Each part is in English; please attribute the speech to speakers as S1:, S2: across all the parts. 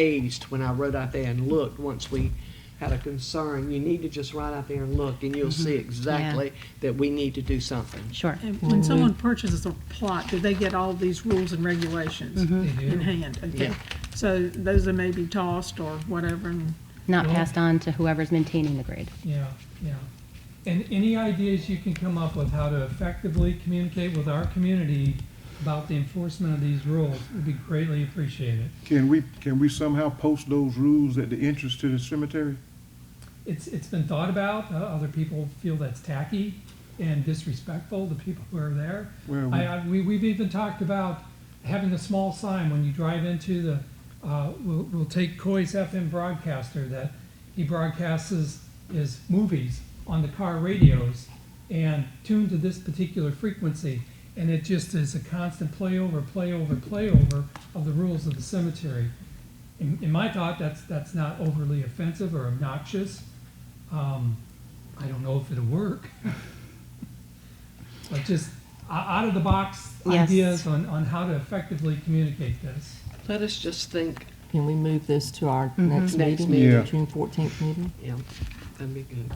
S1: hazed when I wrote out there and looked once we had a concern. You need to just write out there and look, and you'll see exactly that we need to do something.
S2: Sure.
S3: And When someone purchases a plot, do they get all these rules and regulations
S4: Mm-hmm.
S3: in hand? Okay,
S1: Yeah.
S3: So those that may be tossed or whatever, and
S2: Not
S4: Well-
S2: passed on to whoever's maintaining the grade.
S4: Yeah, yeah. And any ideas you can come up with how to effectively communicate with our community about the enforcement of these rules would be greatly appreciated.
S5: Can we, can we somehow post those rules at the entrance to the cemetery?
S4: It's, it's been thought about, uh, other people feel that's tacky and disrespectful to people who are there.
S5: Where we-
S4: I, I, we, we've even talked about having a small sign when you drive into the, uh, we'll, we'll take Coy's FM broadcaster that he broadcasts his, his movies on the car radios and tuned to this particular frequency. And it just is a constant playover, playover, playover of the rules of the cemetery. In, in my thought, that's, that's not overly offensive or obnoxious. Um, I don't know if it'll work. But just o- out of the box
S2: Yes.
S4: ideas on, on how to effectively communicate this.
S1: Let us just think,
S6: Can we move this to our next
S1: Mm-hmm. Next
S6: meeting,
S5: meeting.
S6: the
S5: Yeah.
S6: June fourteenth meeting?
S1: yeah, that'd be good.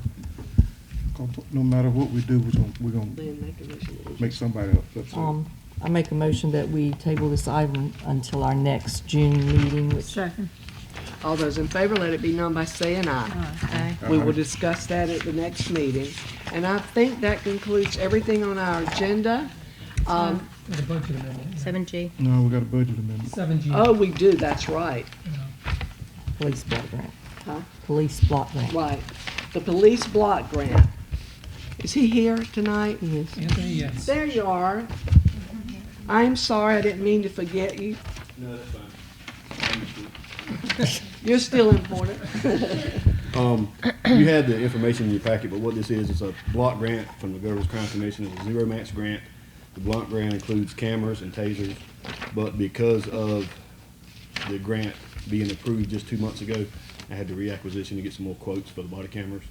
S5: 'Cause No matter what we do, we're gonna, we're gonna
S1: Then make a motion.
S5: make somebody upset.
S6: Um, I make a motion that we table this item until our next June meeting, which
S3: second.
S1: All those in favor, let it be known by saying aye. We will discuss that at the next meeting. And I think that concludes everything on our agenda. Um,
S4: For the budget amendment,
S2: Seven G.
S5: No, we got a budget amendment.
S4: seven G.
S1: oh, we do, that's right,
S6: police block grant.
S1: Huh?
S6: Police block grant.
S1: right. The police block grant. Is he here tonight?
S6: Yes.
S4: Anthony, yes.
S1: There you are. I'm sorry, I didn't mean to forget you.
S7: No, that's fine.
S1: You're still important.
S7: You had the information in your packet, but what this is, is a block grant from the Governor's Crime Commission. It's a zero match grant. The block grant includes cameras and tasers, but because of the grant being approved just two months ago, I had to reacquisition to get some more quotes for the body cameras.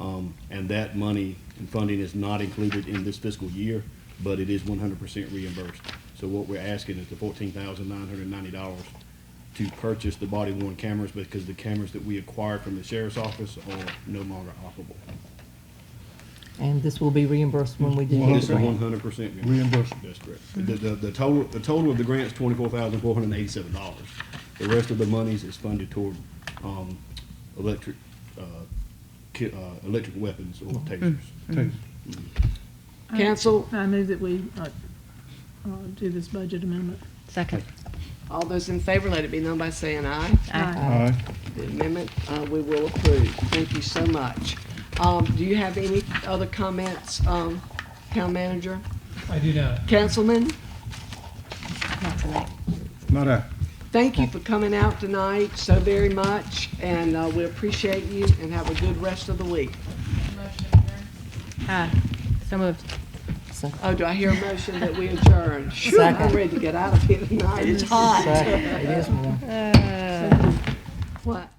S7: Um, and that money and funding is not included in this fiscal year, but it is one hundred percent reimbursed. So what we're asking is the fourteen thousand nine hundred ninety dollars to purchase the body worn cameras because the cameras that we acquired from the sheriff's office are no longer operable.
S6: And this will be reimbursed when we do
S7: This
S6: the
S7: is one
S6: grant.
S7: hundred percent
S5: Reimbursed.
S7: That's correct. The, the, the total, the total of the grant is twenty-four thousand four hundred and eighty-seven dollars. The rest of the monies is funded toward, um, electric, uh, ki- uh, electric weapons or tasers.
S5: Taser.
S3: I-
S1: Counsel?
S3: I move that we uh, uh, do this budget amendment.
S2: Second.
S1: All those in favor, let it be known by saying aye.
S2: Aye.
S5: Aye.
S1: The amendment, uh, we will approve. Thank you so much. Um, do you have any other comments, um, town manager?
S4: I do not.
S1: Councilman,
S2: Not tonight.
S5: Not I.
S1: thank you for coming out tonight so very much, and, uh, we appreciate you, and have a good rest of the week.
S2: Aye. So moved.
S6: So-
S1: Oh, do I hear a motion that we adjourn? Phew, I'm
S6: Second.
S1: ready to get out of here tonight. It's hot.
S6: so It is more.
S1: What?